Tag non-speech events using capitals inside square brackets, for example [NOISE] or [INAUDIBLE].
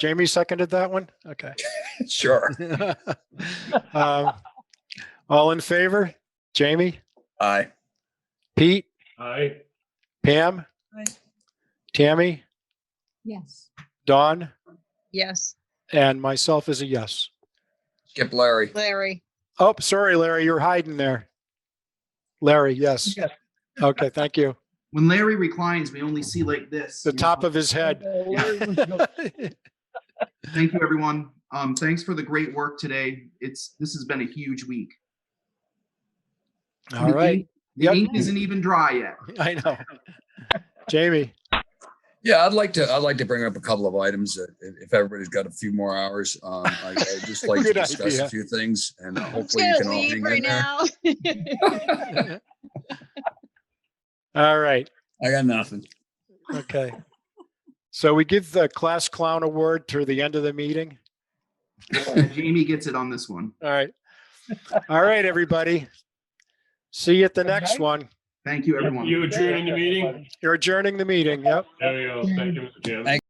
Jamie seconded that one? [LAUGHS] Okay. Sure. Um, All in favor? Jamie, Aye. Pete, Aye. Pam? Aye. Tammy, Yes. Don, Yes, and myself is a yes. Skip Larry. Larry. Oh, sorry, Larry, you're hiding there. Larry, yes. Yes. Okay, thank you. When Larry reclines, we only see like this. The you know? top of his [LAUGHS] head. Thank you, everyone. Um, thanks for the great work today. It's, this has been a huge week. All right. The Yep. ink isn't even dry yet. [LAUGHS] I know. Jamie, Yeah, I'd like to, I'd like to bring up a couple of items that if if everybody's got a few more hours. Um, I- I'd just like to Good discuss idea. [LAUGHS] a few things [GASPS] and hopefully you Should can all leave hang in right there. now. all right, I got nothing. okay. So we give the class clown award to the end of the meeting. Jamie gets it on this one. All right. All right, everybody. See you at the Good next night. one. Thank you, everyone. You adjourning the meeting? You're adjourning the meeting. Yep. There you go. Thank you, Mr. Chairman.